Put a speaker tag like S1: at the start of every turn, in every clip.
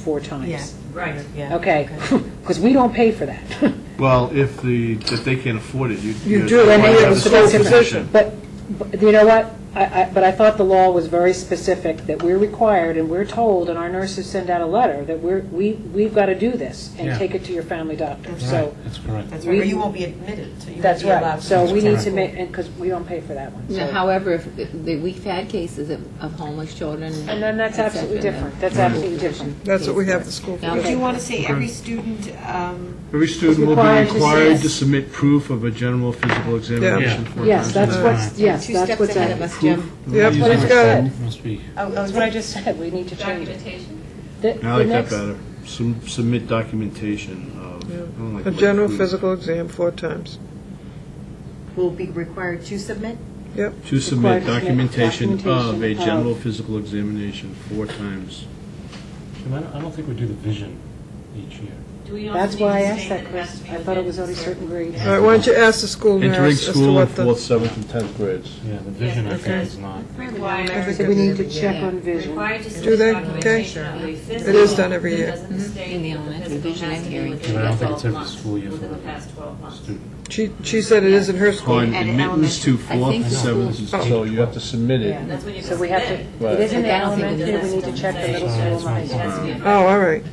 S1: four times.
S2: Right, yeah.
S1: Okay, because we don't pay for that.
S3: Well, if the, if they can't afford it, you.
S1: You do, and
S3: might
S1: you
S3: have
S1: have
S3: a
S1: a sole
S3: sole
S1: position. But, but you know what? I, I, but I thought the law was very specific, that we're required, and we're told, and our nurses send out a letter, that we're, we, we've got to do this, and
S4: Yeah.
S1: take it to your family doctor,
S2: That's
S1: so.
S4: That's correct.
S2: That's right, or
S1: We-
S2: you won't be admitted, so you won't
S1: That's
S2: be allowed.
S1: right, so
S2: to-
S1: we need to
S4: correct.
S1: make, and, because we don't pay for that one,
S5: Now,
S1: so.
S5: however, if the- the, we've had cases of, of homeless children.
S1: And then that's
S5: et
S1: absolutely
S5: cetera.
S1: different, that's absolutely different.
S6: That's what we have the school
S5: Now,
S6: for.
S2: Would you
S5: okay.
S2: want to say every student, um,
S3: Every student will
S1: Required to
S3: be required
S1: see
S3: to
S1: us.
S3: submit proof of a general physical examination.
S4: Yeah.
S3: four
S1: Yes,
S3: times a
S1: that's
S3: day.
S1: what's, yes,
S5: Two
S1: that's
S5: steps
S1: what's.
S5: ahead
S1: added.
S5: of us, Jim.
S6: Yep,
S3: Using
S6: it's
S3: my
S6: good.
S3: phone.
S4: Must be.
S2: oh,
S1: That's what I just said, we need to change it. Documentation?
S3: I like that better. Sub- Submit documentation of. I don't like
S6: A
S3: the word
S6: general
S3: proof.
S6: physical exam four times.
S2: will be required to submit?
S6: Yep,
S3: To submit
S1: Required to submit
S3: documentation of a
S1: documentation of-
S3: general physical examination four times.
S4: Jim, I don't, I don't think we do the vision each year.
S1: That's why I asked that, Chris. I thought it was only certain grades.
S6: all right, why don't you ask the school
S3: Entering
S6: nurse as to
S3: school in
S6: what
S3: fourth,
S6: the,
S3: seventh, and tenth grades.
S4: Yeah, the vision, I think, is not.
S7: Required,
S1: So we need to check on vision.
S7: required to submit
S6: Do they?
S7: documentation
S6: Okay.
S7: of
S6: It
S7: a
S6: is done
S7: physical
S6: every
S7: that
S6: year.
S1: Mm-hmm.
S7: doesn't state
S5: In the
S7: that
S5: elementary
S7: physical
S5: vision
S7: has
S5: and
S7: to be
S5: hearing.
S7: within
S4: But I don't think
S7: 12
S4: it's every
S7: months,
S4: school year for
S7: Within the
S4: that.
S7: past 12 months.
S4: Student.
S6: she, she said it isn't her school.
S3: On
S7: At an
S3: admittance to
S7: elementary.
S5: I
S3: fourth,
S5: think
S3: seventh, and
S4: school-
S3: so you have to submit it.
S7: That's when you
S1: So we have
S7: submit.
S1: to, it is in the
S5: I don't think
S1: elementary, we
S5: it's-
S1: need to check the middle
S4: Sorry,
S1: school and
S4: it's
S1: high
S4: my
S7: It has
S1: school.
S7: to be.
S6: Oh, all right,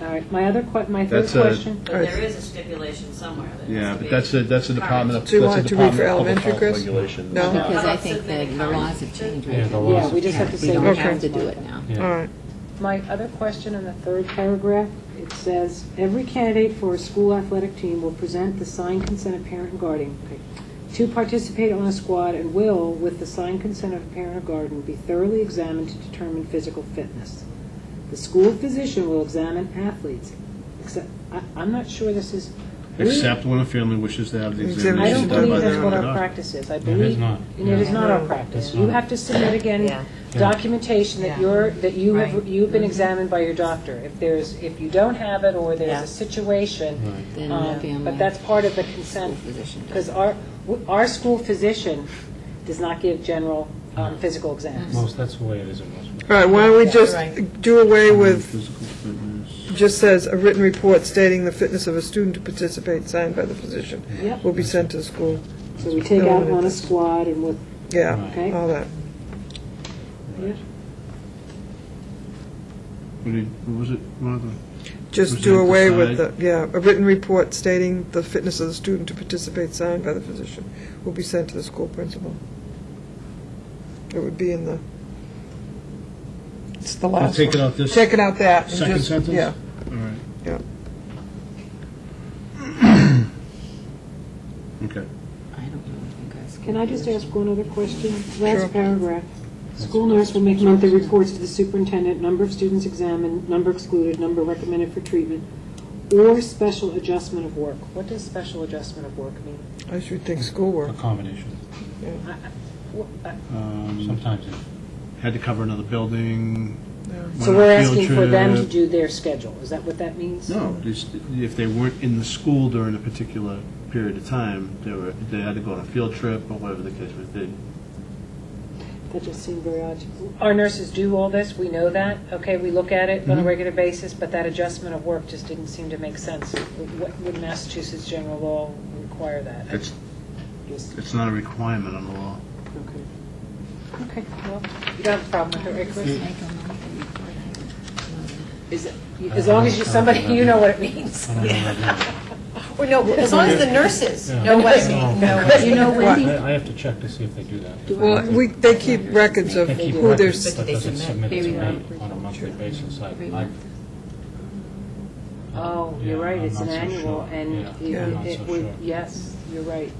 S1: All right, my other que, my third
S3: That's a-
S1: question,
S7: But there is a stipulation somewhere that it has
S3: Yeah,
S7: to
S3: but
S7: be.
S3: that's a, that's a department of,
S6: Do you
S3: that's a
S6: want it to read for
S3: department of public
S6: elementary,
S3: health
S6: Chris?
S3: regulation.
S6: No?
S5: Because I
S7: about
S5: think the,
S7: submitting
S5: the laws
S7: comments?
S5: have changed.
S4: Yeah, the laws
S1: yeah, we just have to
S5: We
S1: say.
S5: don't
S6: Okay.
S5: have to do it now.
S6: all
S4: Yeah.
S6: right.
S1: My other question in the third paragraph, it says, "Every candidate for a school athletic team will present the signed consent of parent and guardian okay, to participate on a squad and will, with the signed consent of parent or guardian, be thoroughly examined to determine physical fitness. The school physician will examine athletes." Except, I- I'm not sure this is... we-
S3: Except when a family wishes to have the
S6: Examination
S1: I don't
S3: examination
S6: done
S3: done by
S1: believe
S3: their
S1: that's
S3: own
S1: what our
S3: doctor.
S1: practice is. I
S4: is
S1: believe...
S4: not.
S1: and it is not our
S2: No.
S1: practice.
S4: It's
S1: You
S4: not.
S1: have to submit
S2: Yeah.
S1: again documentation that
S2: Yeah.
S1: you're, that you have,
S2: Right. Mm-hmm.
S1: you've been examined by your doctor. If there's, if you don't have it, or there's
S2: Yeah.
S1: a situation,
S4: Right.
S5: Then the
S1: um,
S5: family.
S1: but that's part of the consent,
S5: School physician does
S1: because our, w- our school physician does not give general um, physical exams.
S4: Most, that's the way it is in most.
S6: All right, why don't we just
S2: right.
S6: do away with,
S3: Physical fitness.
S6: just says, a written report stating the fitness of a student to participate signed by the physician
S1: Yep,
S6: will be sent to the school.
S1: so we take out on a squad and with,
S6: Yeah,
S1: okay?
S6: all that.
S3: What did- what was it, Martha?
S6: Just
S3: Present
S6: do
S3: the
S6: away with the,
S3: side.
S6: yeah, a written report stating the fitness of the student to participate signed by the physician will be sent to the school principal. It would be in the, it's the
S3: I'll
S6: last
S3: take it
S6: one.
S3: out this
S6: Taking out that. and
S3: second
S6: just-
S3: sentence?
S6: Yeah,
S3: All right,
S6: yeah.
S3: okay.
S5: I don't know. if you guys
S1: Can I just ask one other question?
S6: Sure.
S1: Last paragraph. School nurse will make monthly reports to the superintendent, number of students examined, number excluded, number recommended for treatment, or special adjustment of work. What does special adjustment of work mean?
S6: I should think schoolwork.
S4: A combination.
S1: Wh- uh, I-
S3: Um,
S4: Sometimes it
S3: Had to cover another building. went
S1: So
S3: on a
S1: we're
S3: field
S1: asking for them to
S3: trip.
S1: do their schedule. Is that what that means?
S3: No, just if they weren't in the school during a particular period of time, they were, they had to go on a field trip or whatever the case may be.
S1: That just seemed very odd. to- Our nurses do all this, we know that. Okay, we look at it on a regular basis, but that adjustment of work just didn't seem to make sense. What- Would Massachusetts general law require that?
S3: It's,
S1: Just-
S3: it's not a requirement on the law.
S1: Okay. Okay, well, you don't have a problem with it, right, Chris? Is it- As long as you, somebody, you know what it means.
S4: I don't know what I do.
S2: Well, no, as long as the nurses
S4: Yeah.
S2: know what,
S4: No.
S2: know what.
S5: You know, Wendy,
S4: I I have to check to see if they do that.
S6: Well, we, they keep records of
S4: They keep
S6: who they're,
S4: records,
S6: s-
S4: but does it submit it to
S5: Maybe
S4: me
S5: not.
S4: on a monthly basis? I-
S5: Maybe
S4: I-
S5: not.
S1: Oh,
S4: Yeah,
S1: you're right,
S4: I'm
S1: it's an
S4: not so
S1: annual,
S4: sure.
S1: and it-
S4: Yeah, I'm not
S1: it
S4: so
S1: would,
S4: sure.
S1: yes, you're right.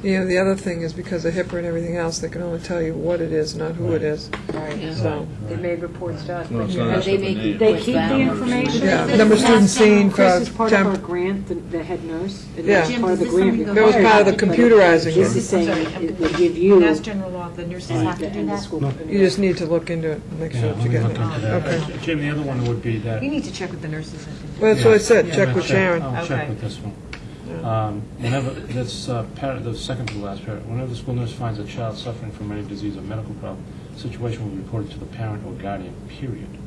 S6: you know, the other thing is because of HIPAA and everything else, they can only tell you what it is, not who it is.
S1: Right.
S5: Yeah.
S6: So,
S1: They made reports to us.
S3: No, it's
S1: but-
S3: not.
S5: Are they making?
S3: They
S1: They keep the information.
S6: yeah, number of students seen,
S1: Chris is
S6: crowd,
S1: part of our
S6: temp,
S1: grant, the- the head nurse. and
S6: Yeah.
S1: that's
S6: Jim,
S1: part of the grant
S6: that was part of the
S1: requirement, but
S6: computerizing.
S1: This
S6: it.
S1: is saying it would give you
S2: That's
S1: and
S2: general law, the nurses have to do
S1: and the
S2: that.
S1: school.
S6: You just need to look into it and make
S4: Yeah,
S6: sure
S4: let
S6: that you
S4: me
S6: get
S4: look
S6: it.
S4: into that. Jim, the other one would be that.
S2: You need to check with the nurses. I think.
S6: Well, that's what I said,
S4: Yeah, Oh.
S6: check
S4: I'll
S6: with Sharon.
S4: I'll check
S2: Okay.
S4: with this one. Um, Whenever, this, uh, par- the second to the last parent, whenever the school nurse finds a child suffering from any disease or medical problem, the situation will be reported to the parent or guardian, period.